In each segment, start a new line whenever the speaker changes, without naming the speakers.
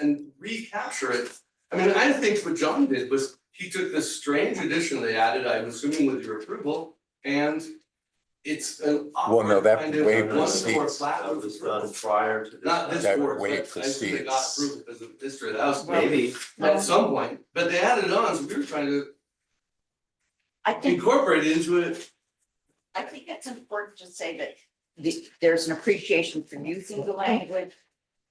and recapture it. I mean, I think what John did was he took this strange addition they added, I'm assuming with your approval, and it's an
Well, no,
awkward
that
kind of
way
one floor
precedes-
flat
That
roof
was done
approval.
prior to.
Not this
That
board, but
way
I assume they got
precedes-
approval because of history, that was
Maybe.
at some point, but they added on, so we were trying to
I think,
incorporate it into it.
I think it's important to say that the, there's an appreciation for using the language.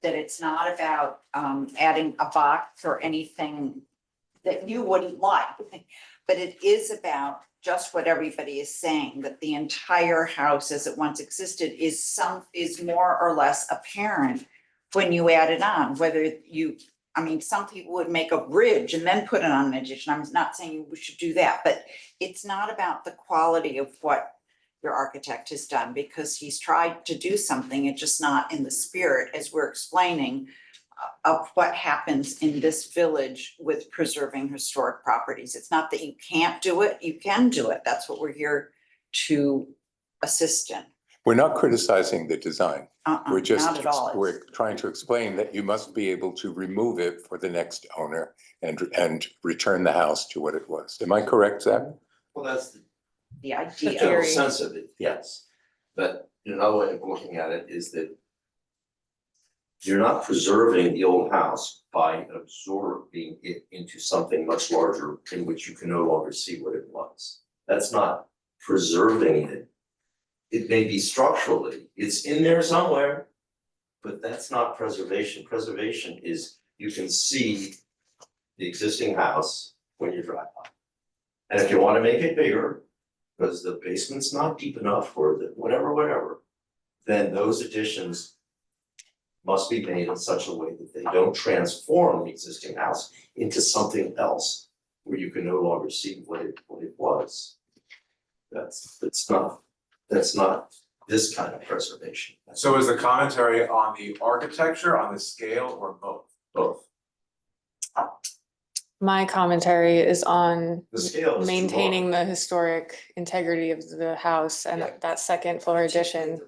That it's not about, um, adding a box or anything that you wouldn't like. But it is about just what everybody is saying, that the entire house as it once existed is some, is more or less apparent. When you add it on, whether you, I mean, some people would make a bridge and then put it on an addition. I'm not saying we should do that, but it's not about the quality of what your architect has done, because he's tried to do something, it's just not in the spirit, as we're explaining, uh, of what happens in this village with preserving historic properties. It's not that you can't do it, you can do it. That's what we're here to assist in.
We're not criticizing the design.
Uh-uh,
We're
Not
just,
at all.
we're trying to explain that you must be able to remove it for the next owner and, and return the house to what it was. Am I correct, Zach?
Mm-hmm.
Well, that's the
The
the
idea.
general sense of it, yes. But another way of looking at it is that you're not preserving the old house by absorbing it into something much larger in which you can no longer see what it was. That's not preserving it. It may be structurally, it's in there somewhere, but that's not preservation. Preservation is you can see the existing house when you drive by. And if you wanna make it bigger, because the basement's not deep enough or the whatever, whatever, then those additions must be made in such a way that they don't transform the existing house into something else where you can no longer see what it, what it was. That's, that's not, that's not this kind of preservation, that's
So is the commentary on the architecture, on the scale, or both?
both.
My commentary is on
The scale is too long.
maintaining the historic integrity of the house and
Yeah.
that second floor addition.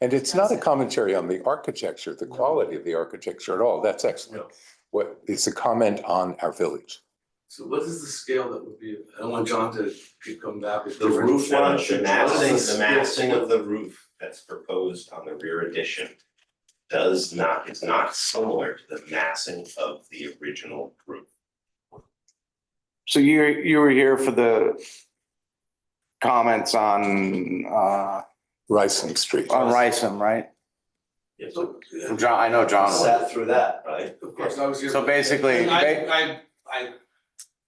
And it's not a commentary on the architecture, the quality of the architecture at all. That's excellent.
No,
What, it's a comment on our village.
So what is the scale that would be, I don't want John to keep coming back with
The
different
roof
one.
the massing, the massing of the roof that's proposed on the rear addition does not, is not similar to the massing of the original roof.
So you, you were here for the comments on, uh,
Rysing Street.
on Rysam, right?
Yes,
So, yeah,
John, I know John was.
Sat through that,
right?
Of course, I was here.
So
for-
basically,
And I, I, I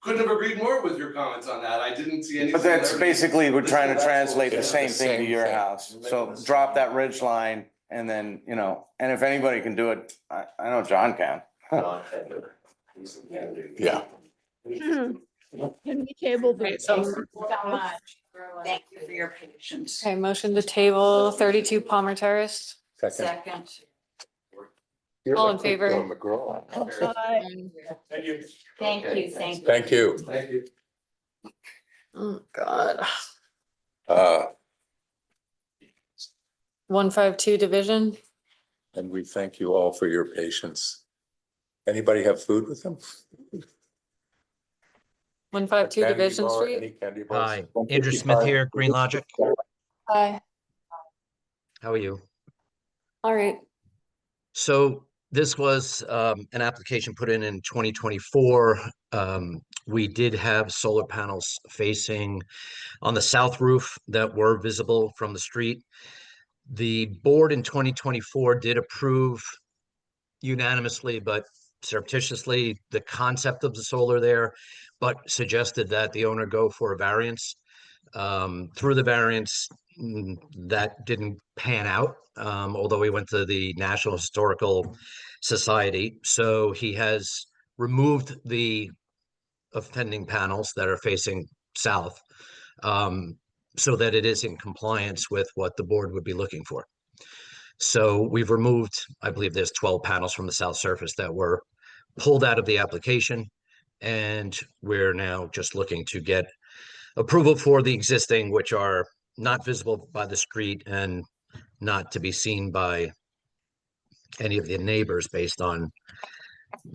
couldn't have agreed more with your comments on that. I didn't see anything.
But that's
there.
basically, we're trying to translate the
It's
same thing to your
thing.
house. So drop that ridge line and then, you know, and if anybody can do it, I, I know John can.
John Hedman, he's the man who-
Yeah.
Can we table
Right,
this?
so-
Thank you so much.
Thank you for your patience.
Okay, motion to table thirty-two Palmer Terrace.
Second.
Second.
You're
All in
like Bill
favor?
McGraw.
Bye.
Thank you.
Thank
Okay,
you,
thanks.
thank you.
Thank you.
Thank you.
Oh, God.
Uh,
One five two division.
And we thank you all for your patience. Anybody have food with them?
One
Uh,
five two
Candy
Division
bar,
Street.
any candy bars?
Hi, Andrew Smith here, Green Logic.
Hi.
How are you?
All right.
So this was um, an application put in in 2024. Um, We did have solar panels facing on the south roof that were visible from the street. The board in 2024 did approve unanimously, but surreptitiously, the concept of the solar there, but suggested that the owner go for a variance. Um, Through the variance, mm, that didn't pan out, um, although he went to the National Historical Society. So he has removed the offending panels that are facing south um, so that it is in compliance with what the board would be looking for. So we've removed, I believe there's 12 panels from the south surface that were pulled out of the application. And we're now just looking to get approval for the existing, which are not visible by the street and not to be seen by any of the neighbors based on